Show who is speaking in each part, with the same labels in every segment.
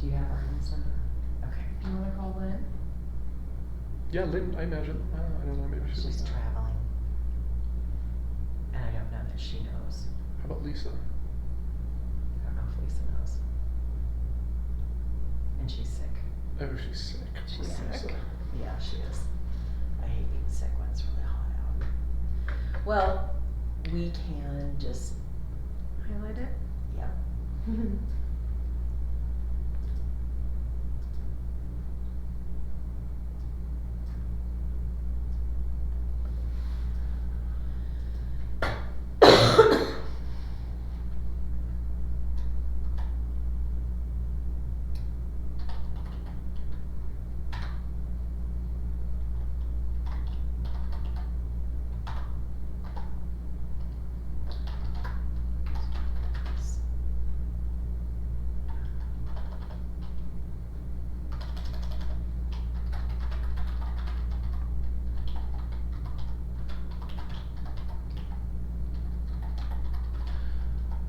Speaker 1: Do you have Ryan's number? Okay.
Speaker 2: Do you wanna call Lynn?
Speaker 3: Yeah, Lynn, I imagine. I don't know, I don't know maybe she
Speaker 1: She's
Speaker 3: doesn't know.
Speaker 1: traveling. And I don't know that she knows.
Speaker 3: How about Lisa?
Speaker 1: I don't know if Lisa knows. And she's sick.
Speaker 3: Oh, she's sick.
Speaker 1: She's
Speaker 3: Poor
Speaker 1: sick.
Speaker 3: Lisa.
Speaker 1: Yeah, she is. I hate being sick when it's really hot out. Well, we can just,
Speaker 2: Highlight it?
Speaker 1: yep.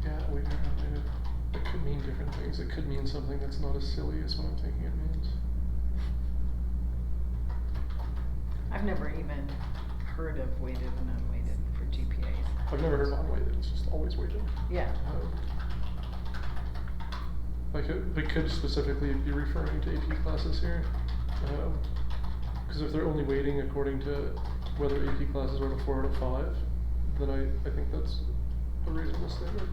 Speaker 3: Yeah, we don't know. It could mean different things. It could mean something that's not as silly as what I'm thinking it means.
Speaker 4: I've never even heard of weighted and unweighted for GPAs.
Speaker 3: I've never heard of unweighted. It's just always weighted.
Speaker 4: Yeah.
Speaker 3: Um, Like it, they could specifically be referring to AP classes here, because if they're only weighting according to whether AP classes are at a four out of five, then I, I think that's a reasonable statement.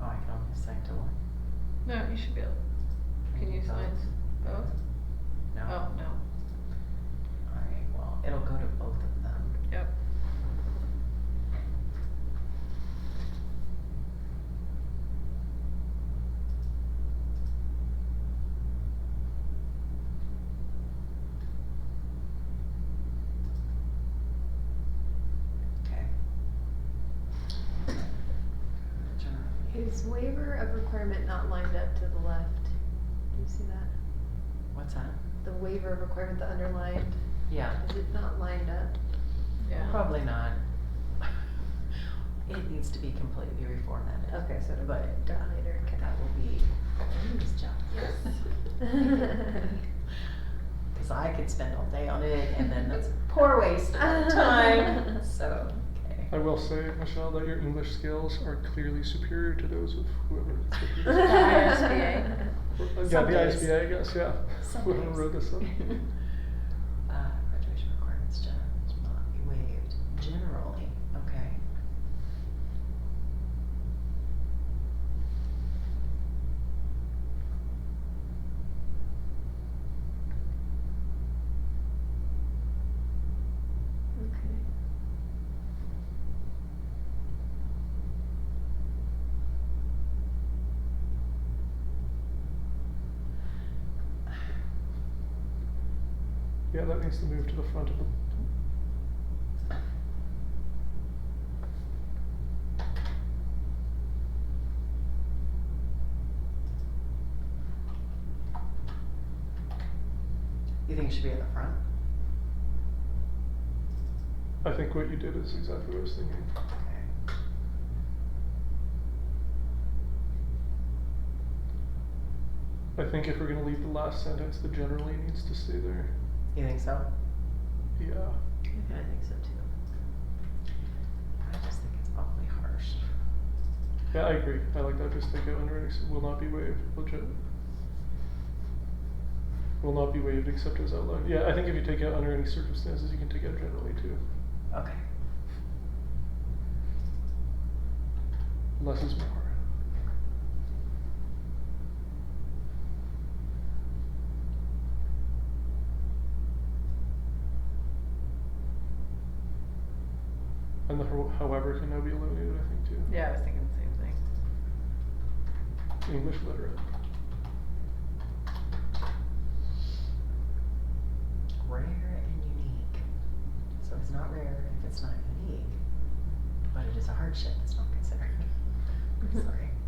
Speaker 1: Oh, I can only assign to one.
Speaker 2: No, you should be able, can you
Speaker 1: Both?
Speaker 2: sign both?
Speaker 1: No.
Speaker 2: Oh, no,
Speaker 1: All right, well, it'll go to both of them.
Speaker 2: yep.
Speaker 1: Okay. Good job.
Speaker 5: Is waiver of requirement not lined up to the left? Do you see that?
Speaker 1: What's that?
Speaker 5: The waiver of requirement, the underlined,
Speaker 1: Yeah,
Speaker 5: is it not lined up?
Speaker 2: Yeah.
Speaker 1: probably not. It needs to be completely reformatted.
Speaker 5: Okay, so it'll
Speaker 1: But,
Speaker 5: be done
Speaker 1: uh,
Speaker 5: later, okay.
Speaker 1: That will be Amy's job.
Speaker 5: Yes.
Speaker 1: Cause I could spend all day on it and then that's poor waste of time, so, okay.
Speaker 3: I will say, Michelle, that your English skills are clearly superior to those of whoever.
Speaker 2: ISBA.
Speaker 3: uh, yeah,
Speaker 1: Some
Speaker 3: the
Speaker 1: days.
Speaker 3: ISBA, I guess, yeah.
Speaker 1: Some
Speaker 3: Whoever
Speaker 1: days.
Speaker 3: wrote this up.
Speaker 1: Uh, graduation requirements generally will not be waived, generally, okay.
Speaker 5: Okay.
Speaker 3: Yeah, that needs to move to the front of the.
Speaker 1: You think it should be at the front?
Speaker 3: I think what you did is exactly what I was thinking.
Speaker 1: Okay.
Speaker 3: I think if we're gonna leave the last sentence, the generally needs to stay there.
Speaker 1: You think so?
Speaker 3: Yeah.
Speaker 1: Okay, I think so too. I just think it's awfully harsh.
Speaker 3: Yeah, I agree. I like that. Just take out underwritings will not be waived. Legit. Will not be waived except as outlined. Yeah, I think if you take out under any circumstances, you can take out generally too.
Speaker 1: Okay.
Speaker 3: Less is more. And the ho- however can now be eliminated, I think, too.
Speaker 4: Yeah, I was thinking the same thing.
Speaker 3: English literate.
Speaker 1: Rare and unique. So it's not rare if it's not unique, but it is a hardship. It's not considered. Sorry.